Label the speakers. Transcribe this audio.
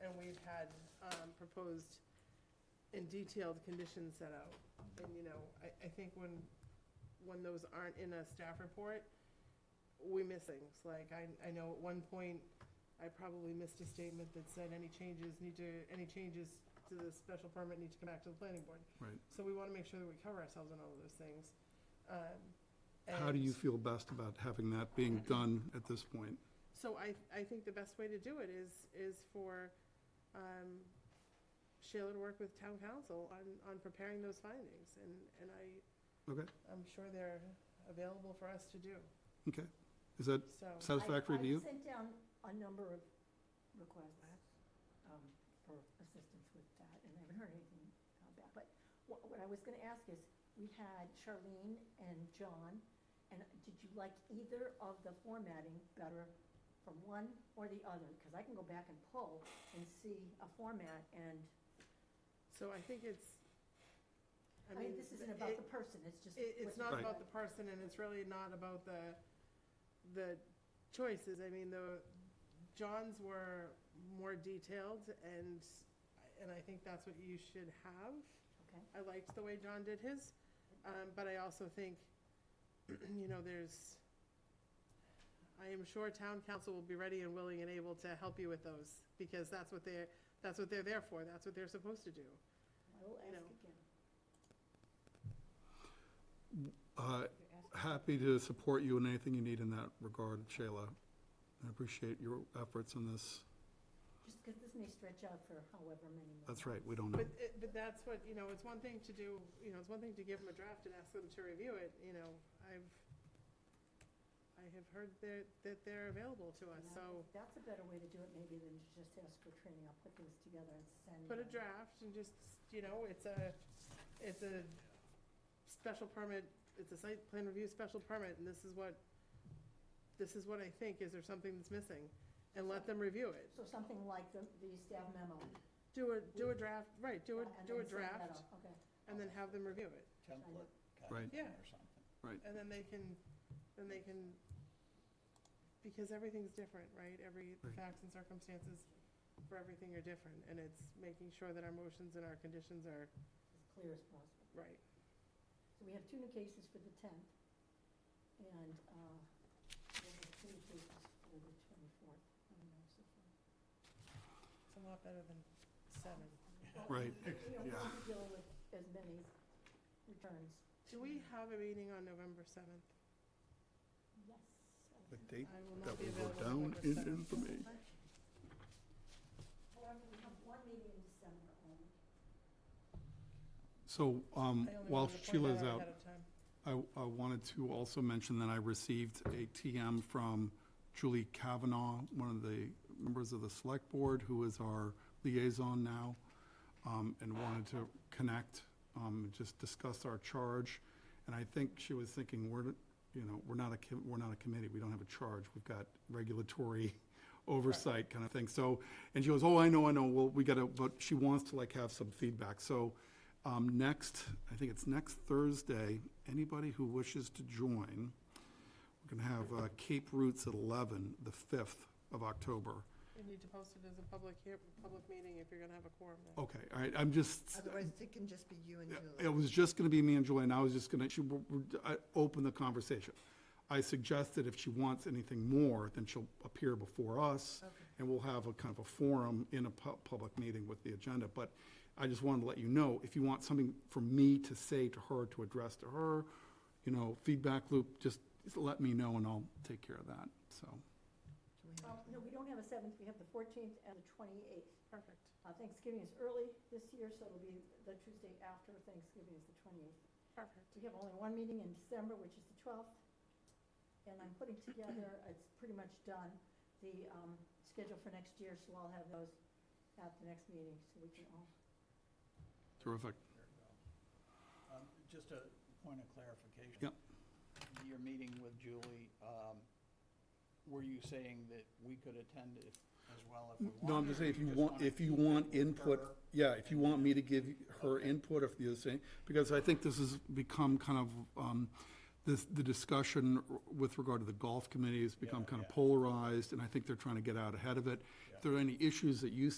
Speaker 1: had um, proposed and detailed conditions set out. And, you know, I, I think when, when those aren't in a staff report, we miss things. Like, I, I know at one point, I probably missed a statement that said any changes need to, any changes to the special permit need to come back to the planning board.
Speaker 2: Right.
Speaker 1: So we want to make sure that we cover ourselves on all of those things. Um,
Speaker 2: How
Speaker 1: and-
Speaker 2: do you feel best about having that being done at this point?
Speaker 1: So I, I think the best way to do it is, is for um, Sheila to work with town council on, on preparing those findings, and, and I,
Speaker 2: Okay,
Speaker 1: I'm sure they're available for us to do,
Speaker 2: okay. Is that
Speaker 1: so.
Speaker 2: satisfactory to
Speaker 3: I- I
Speaker 2: you?
Speaker 3: sent down a number of requests um, for assistance with that, and I haven't heard anything uh, back. But wha- what I was going to ask is, we had Charlene and John, and did you like either of the formatting better for one or the other? Because I can go back and pull and see a format, and,
Speaker 1: So I think it's,
Speaker 3: I mean, this isn't about the person, it's just.
Speaker 1: It, it's not
Speaker 3: what-
Speaker 2: Right.
Speaker 1: about the person, and it's really not about the, the choices, I mean, the, John's were more detailed, and, and I think that's what you should have.
Speaker 3: Okay,
Speaker 1: I liked the way John did his, um, but I also think, you know, there's, I am sure town council will be ready and willing and able to help you with those, because that's what they're, that's what they're there for, that's what they're supposed to do.
Speaker 3: I will ask
Speaker 1: know.
Speaker 3: again.
Speaker 2: Uh,
Speaker 3: You're asking-
Speaker 2: Happy to support you in anything you need in that regard, Shayla. I appreciate your efforts in this.
Speaker 3: Just because this may stretch out for however many more.
Speaker 2: That's right, we don't know.
Speaker 1: But, it- but that's what, you know, it's one thing to do, you know, it's one thing to give them a draft and ask them to review it, you know, I've, I have heard that, that they're available to us, so
Speaker 3: That's a better way to do it maybe than to just ask for training. I'll put things together and send.
Speaker 1: put a
Speaker 3: them.
Speaker 1: draft and just, you know, it's a, it's a special permit, it's a site plan review special permit, and this is what, this is what I think, is there something that's missing? And let them review it.
Speaker 3: So something like the, the staff memo.
Speaker 1: Do a, do a draft, right, do a,
Speaker 3: and
Speaker 1: do a
Speaker 3: then send
Speaker 1: draft,
Speaker 3: that out. Okay.
Speaker 1: and then have them review it.
Speaker 4: template kind
Speaker 2: Right.
Speaker 4: of thing
Speaker 1: Yeah.
Speaker 4: or something.
Speaker 2: Right,
Speaker 1: And then they can, then they can, because everything's different, right? Every, the
Speaker 2: Right.
Speaker 1: facts and circumstances for everything are different, and it's making sure that our motions and our conditions are
Speaker 3: As clear as possible.
Speaker 1: right.
Speaker 3: So we have two new cases for the tenth and, uh, we have two new cases for the twenty-fourth.
Speaker 1: It's a lot better than seven.
Speaker 2: Right.
Speaker 3: You know, we'll
Speaker 2: Yeah.
Speaker 3: be dealing with as many returns.
Speaker 1: Do we have a meeting on November 7th?
Speaker 3: Yes. I
Speaker 2: The
Speaker 3: think
Speaker 2: date
Speaker 1: I will not
Speaker 2: that
Speaker 1: be
Speaker 2: will go
Speaker 1: available
Speaker 2: down
Speaker 1: November
Speaker 2: in
Speaker 1: 7th.
Speaker 2: infamy.
Speaker 3: election. However, we have one meeting in December only.
Speaker 2: So um,
Speaker 1: I only
Speaker 2: while
Speaker 1: wanted to point that
Speaker 2: Sheila's out,
Speaker 1: Ahead of time.
Speaker 2: I, I wanted to also mention that I received a TM from Julie Kavanaugh, one of the members of the select board, who is our liaison now, um, and wanted to connect, um, just discuss our charge. And I think she was thinking, we're, you know, we're not a, com- we're not a committee, we don't have a charge, we've got regulatory oversight kind of thing. So, and she goes, oh, I know, I know, well, we gotta, but she wants to like have some feedback. So um, next, I think it's next Thursday, anybody who wishes to join, we're going to have uh, Cape Roots at 11, the 5th of October.
Speaker 1: You need to post it as a public, hea- public meeting if you're going to have a quorum. then.
Speaker 2: Okay, all right, I'm just,
Speaker 5: Otherwise, it can just be you and
Speaker 2: it
Speaker 5: Julie.
Speaker 2: was just going to be me and Julie, and I was just going to, open the conversation. I suggested if she wants anything more, then she'll appear before us, and we'll have a kind of a forum in a pu- public meeting with the agenda. But I just wanted to let you know, if you want something from me to say to her, to address to her, you know, feedback loop, just let me know, and I'll take care of that, so.
Speaker 5: Do we have-
Speaker 3: Um, No, we don't have a 7th, we have the 14th and the 28th.
Speaker 1: Perfect.
Speaker 3: Uh, Thanksgiving is early this year, so it'll be the Tuesday after Thanksgiving is the 28th.
Speaker 1: Perfect.
Speaker 3: We have only one meeting in December, which is the 12th, and I'm putting together, it's pretty much done, the um, schedule for next year, so I'll have those at the next meeting, so we can all,
Speaker 2: Terrific.
Speaker 4: There you go. Um, Just a point of clarification.
Speaker 2: Yep.
Speaker 4: Your meeting with Julie, um, were you saying that we could attend it as well if we wanted?
Speaker 2: No, I'm just saying, if you want, if you want input, yeah, if you want me to give her input, if you're saying, because I think this has become kind of, um, this, the discussion with regard to the golf committee has become
Speaker 4: Yeah,
Speaker 2: kind of
Speaker 4: yeah.
Speaker 2: polarized, and I think they're trying to get out ahead of it. If there are any issues that you